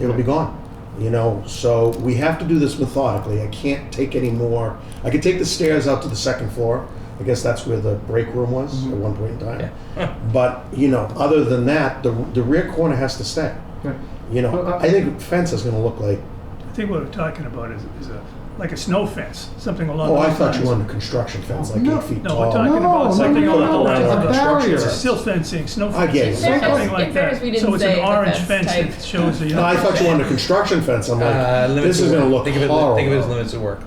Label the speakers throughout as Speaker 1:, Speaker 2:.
Speaker 1: it'll be gone. You know, so we have to do this methodically. I can't take any more. I could take the stairs out to the second floor. I guess that's where the break room was at
Speaker 2: Mm-hmm.
Speaker 1: one point in time. but you know, other than that, the the rear corner has to stay.
Speaker 3: Right.
Speaker 1: You know,
Speaker 3: Well, I-
Speaker 1: I think fence is going to look like.
Speaker 4: I think what we're talking about is, is a, like a snow fence, something along
Speaker 1: Oh,
Speaker 4: those
Speaker 1: I
Speaker 4: lines.
Speaker 1: thought you wanted a construction fence, like
Speaker 3: No.
Speaker 1: eight feet
Speaker 4: No, we're
Speaker 1: tall.
Speaker 4: talking about something
Speaker 3: no, no,
Speaker 4: along the
Speaker 3: no,
Speaker 4: lines
Speaker 3: a
Speaker 4: of
Speaker 3: barrier.
Speaker 4: It's sill fencing, snow
Speaker 1: I get
Speaker 4: fencing,
Speaker 1: it.
Speaker 4: something
Speaker 5: Fairness-
Speaker 4: like
Speaker 5: in fairness,
Speaker 4: that.
Speaker 5: we didn't
Speaker 4: So it's
Speaker 5: say
Speaker 4: an
Speaker 5: the
Speaker 4: orange
Speaker 5: fence
Speaker 4: fence
Speaker 5: type.
Speaker 4: that shows the.
Speaker 1: No, I thought you wanted a construction fence. I'm like,
Speaker 2: Uh, limits
Speaker 1: this
Speaker 2: of
Speaker 1: is
Speaker 2: work.
Speaker 1: going to look
Speaker 2: think of it,
Speaker 1: horrible.
Speaker 2: Think of it as limits of work.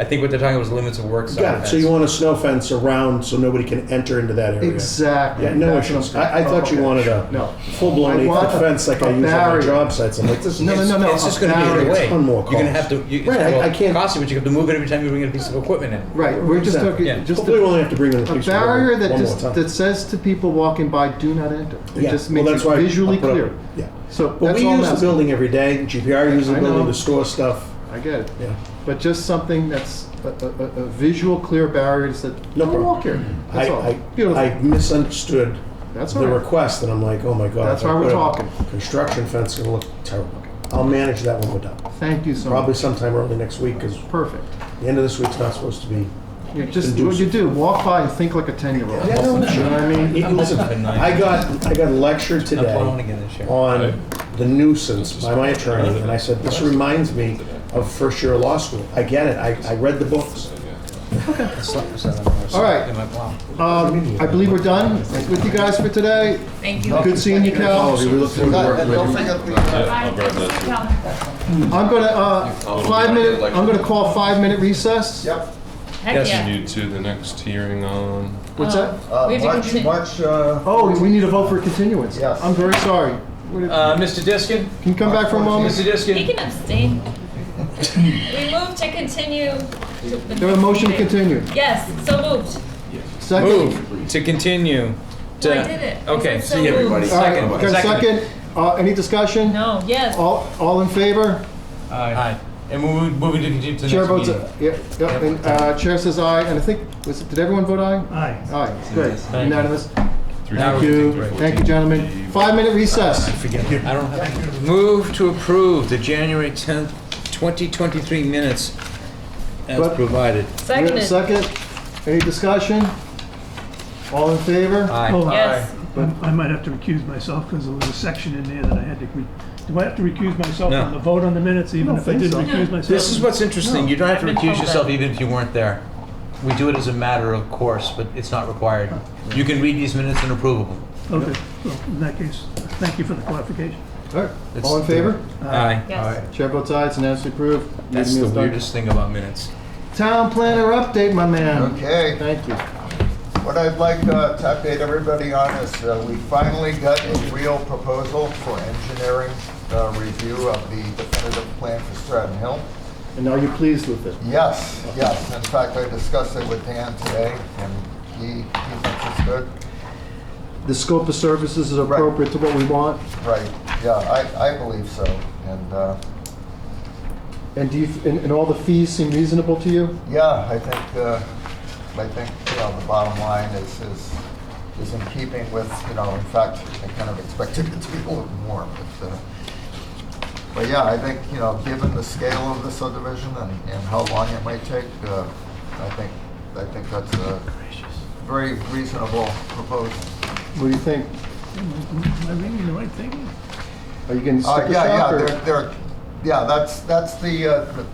Speaker 2: I think what they're talking about is limits of work. side
Speaker 1: Got it. So you
Speaker 2: fence.
Speaker 1: want a snow fence around so nobody can enter into that area.
Speaker 3: Exactly.
Speaker 1: Yeah, no
Speaker 3: That's what
Speaker 1: issues.
Speaker 3: I'm saying. Oh,
Speaker 1: I- I thought you
Speaker 3: Okay.
Speaker 1: wanted a
Speaker 3: No.
Speaker 1: Full-blown
Speaker 3: I want
Speaker 1: eight-foot
Speaker 3: a-
Speaker 1: fence like
Speaker 3: a
Speaker 1: I use on my
Speaker 3: barrier.
Speaker 1: job sites. I'm like, this is.
Speaker 3: No, no, no, no.
Speaker 2: It's just
Speaker 3: a
Speaker 2: going to be in
Speaker 3: barrier.
Speaker 2: the way.
Speaker 1: Ton more
Speaker 2: You're going to
Speaker 1: costs.
Speaker 2: have to. You, it's
Speaker 1: Right, I-
Speaker 2: gonna
Speaker 1: I can't-
Speaker 2: Cost you, but you have to move it every time you bring a piece of equipment in.
Speaker 3: Right, we're just
Speaker 1: Exactly.
Speaker 3: talking,
Speaker 2: Yeah.
Speaker 3: just
Speaker 1: Hopefully, we
Speaker 3: a
Speaker 1: only have to bring in the
Speaker 3: a
Speaker 1: police.
Speaker 3: barrier that
Speaker 1: one
Speaker 3: just,
Speaker 1: more time.
Speaker 3: that says to people walking by, do not enter. It
Speaker 1: Yeah,
Speaker 3: just
Speaker 1: well,
Speaker 3: makes
Speaker 1: that's why
Speaker 3: it
Speaker 1: I- I
Speaker 3: visually
Speaker 1: put up-
Speaker 3: clear.
Speaker 1: Yeah.
Speaker 3: So
Speaker 1: But
Speaker 3: that's
Speaker 1: we
Speaker 3: all I'm
Speaker 1: use the
Speaker 3: asking.
Speaker 1: building every day. GPR uses the
Speaker 3: I
Speaker 1: building
Speaker 3: know.
Speaker 1: to store stuff.
Speaker 3: I get it.
Speaker 1: Yeah.
Speaker 3: But just something that's a, a, a- a visual, clear barrier that said,
Speaker 1: No
Speaker 3: don't
Speaker 1: problem.
Speaker 3: walk here.
Speaker 1: I,
Speaker 3: That's all.
Speaker 1: I,
Speaker 3: Beautiful.
Speaker 1: I misunderstood
Speaker 3: That's all
Speaker 1: the
Speaker 3: right.
Speaker 1: request and I'm like, oh my God.
Speaker 3: That's
Speaker 1: if I
Speaker 3: why we're
Speaker 1: put a
Speaker 3: talking.
Speaker 1: Construction fence is going to look terrible. I'll manage that when we're done.
Speaker 3: Thank you so
Speaker 1: Probably
Speaker 3: much.
Speaker 1: sometime early next week because
Speaker 3: Perfect.
Speaker 1: the end of this week's not supposed to be
Speaker 3: You just, what you do, walk by and think like a ten-year-old.
Speaker 1: Yeah, no,
Speaker 3: You know what I mean?
Speaker 1: Hey, Listen,
Speaker 2: hoping for nine.
Speaker 1: I got, I got lectured
Speaker 2: I'm plowing
Speaker 1: today
Speaker 2: again this year.
Speaker 1: on the nuisance by my attorney, and I said, this reminds me of first year of law school. I get it, I, I read the books.
Speaker 2: I slept for seven hours.
Speaker 3: All right.
Speaker 2: In my plow.
Speaker 3: Um, I believe we're done with you guys for today.
Speaker 5: Thank you.
Speaker 3: Good seeing you,
Speaker 5: Oh,
Speaker 3: Cal.
Speaker 1: We look forward to working with you.
Speaker 6: I'll grab that too.
Speaker 3: I'm gonna, uh, five minute, I'm gonna call five-minute recess.
Speaker 7: Yep.
Speaker 5: Heck
Speaker 2: Yes,
Speaker 5: yeah. Oh,
Speaker 6: You to the next hearing on.
Speaker 3: What's that?
Speaker 7: Uh,
Speaker 5: We have to
Speaker 7: March,
Speaker 5: continue.
Speaker 7: March, uh,
Speaker 3: Oh, we need a vote for continuance.
Speaker 7: Yes.
Speaker 3: I'm very sorry. What if-
Speaker 2: Uh, Mr. Diskin.
Speaker 3: Can you come back for a
Speaker 1: Oh,
Speaker 2: Mr.
Speaker 3: moment?
Speaker 5: He
Speaker 2: Diskin.
Speaker 5: can abstain. We move to continue. to the
Speaker 3: There a
Speaker 5: next
Speaker 3: motion to
Speaker 5: meeting.
Speaker 3: continue.
Speaker 5: Yes, so moved.
Speaker 3: Second?
Speaker 2: Move to continue.
Speaker 5: Well,
Speaker 2: to-
Speaker 5: Oh, I did it. I
Speaker 2: Okay.
Speaker 5: said so moved.
Speaker 3: All right, got a second? Uh, any discussion?
Speaker 5: No, yes.
Speaker 3: All, all in favor?
Speaker 2: Aye. Aye. And moving, moving to continue to the
Speaker 3: Chair
Speaker 2: next
Speaker 3: votes,
Speaker 2: meeting.
Speaker 3: a- yeah, yeah, and, uh, chair says aye, and I think, was, did everyone vote aye?
Speaker 4: Aye.
Speaker 3: Aye, good,
Speaker 2: Thank you.
Speaker 3: unanimous.
Speaker 2: Now
Speaker 3: Thank
Speaker 2: we're
Speaker 3: you,
Speaker 2: continuing.
Speaker 3: thank you, gentlemen. Five-minute recess.
Speaker 2: I don't have. Move to approve the January 10th, 2023 minutes as
Speaker 3: But-
Speaker 2: provided.
Speaker 5: Seconded.
Speaker 3: Second, any discussion? All in favor?
Speaker 2: Aye.
Speaker 5: Yes.
Speaker 4: I I might have to recuse myself because there was a section in there that I had to, re- do I have to recuse myself
Speaker 2: No.
Speaker 4: from the vote on the minutes even
Speaker 3: don't
Speaker 4: if I
Speaker 3: think
Speaker 4: didn't
Speaker 3: so.
Speaker 4: recuse myself?
Speaker 2: This is what's interesting. You don't have
Speaker 5: I've
Speaker 2: to
Speaker 5: been told
Speaker 2: recuse yourself
Speaker 5: that.
Speaker 2: even if you weren't there. We do it as a matter of course, but it's not required. You can read these minutes and approve them.
Speaker 4: Okay, well, in that case, thank you for the clarification.
Speaker 3: All right, all in favor?
Speaker 2: Aye.
Speaker 5: Yes.
Speaker 3: Chair votes aye, it's unanimously approved.
Speaker 2: That's the
Speaker 3: Meeting is done.
Speaker 2: weirdest thing about minutes.
Speaker 3: Town planner update, my man.
Speaker 7: okay.
Speaker 3: Thank you.
Speaker 7: What I'd like uh, to update everybody on is uh, we finally got a real proposal for engineering uh, review of the definitive plan for Stratton Hill.
Speaker 3: And are you pleased with it?
Speaker 7: Yes, yes. In fact, I discussed it with Dan today, and he, he thinks it's good.
Speaker 3: The scope of services is
Speaker 7: Right.
Speaker 3: appropriate to what we want?
Speaker 7: Right, yeah, I, I believe so. And, uh,
Speaker 3: And do you, and, and all the fees seem reasonable to you?
Speaker 7: Yeah, I think, uh, I think, you know, the bottom line is, is, is in keeping with, you know, in fact, I kind of expected it to be a little more, but, uh, but yeah, I think, you know, given the scale of the subdivision and, and how long it might take, uh, I think, I think that's a very reasonable proposal.
Speaker 3: What do you think?
Speaker 4: Am I reading the right thing?
Speaker 3: Are you getting
Speaker 7: Uh,
Speaker 3: sticker
Speaker 7: yeah, yeah,
Speaker 3: shock or?
Speaker 7: there, there, yeah, that's, that's the, uh, the-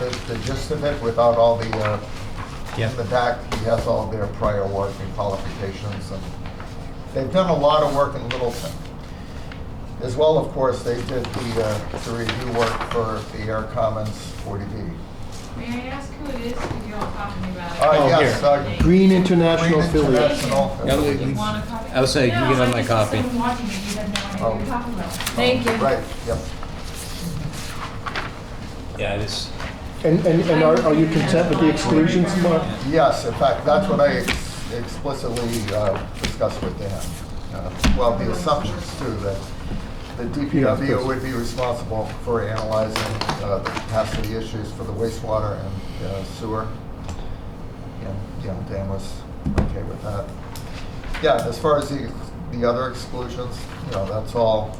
Speaker 7: the, the gist of it without all the, uh,
Speaker 2: Yeah.
Speaker 7: in the back, he has all their prior work and qualifications, and they've done a lot of work in Littleton. As well, of course, they did the, uh, the review work for the Air Commons 40B.
Speaker 8: May I ask who it is? Because you all talked to me about it.
Speaker 7: Uh, yes,
Speaker 2: here.
Speaker 7: uh,
Speaker 3: Green
Speaker 7: Green
Speaker 3: International affiliate.
Speaker 7: International.
Speaker 2: No, we-
Speaker 8: You want a copy?
Speaker 2: I was saying, you
Speaker 8: No,
Speaker 2: can have
Speaker 8: I
Speaker 2: my
Speaker 8: just-
Speaker 2: copy.
Speaker 8: Someone watching it, you have no idea what
Speaker 7: Oh.
Speaker 8: you're talking about.
Speaker 5: Thank you.
Speaker 7: Right, yep.
Speaker 2: Yeah, it is.
Speaker 3: And, and, and are, are you content with the exclusions, Mark?
Speaker 7: Yes, in fact, that's what I ex- explicitly uh, discussed with Dan. Uh, Well, the assumptions too, that the
Speaker 3: Yeah, of
Speaker 7: DPW
Speaker 3: course.
Speaker 7: would be responsible for analyzing uh, the capacity issues for the wastewater and uh, sewer. And, you know, Dan was okay with that. Yeah, as far as the, the other exclusions, you know, that's all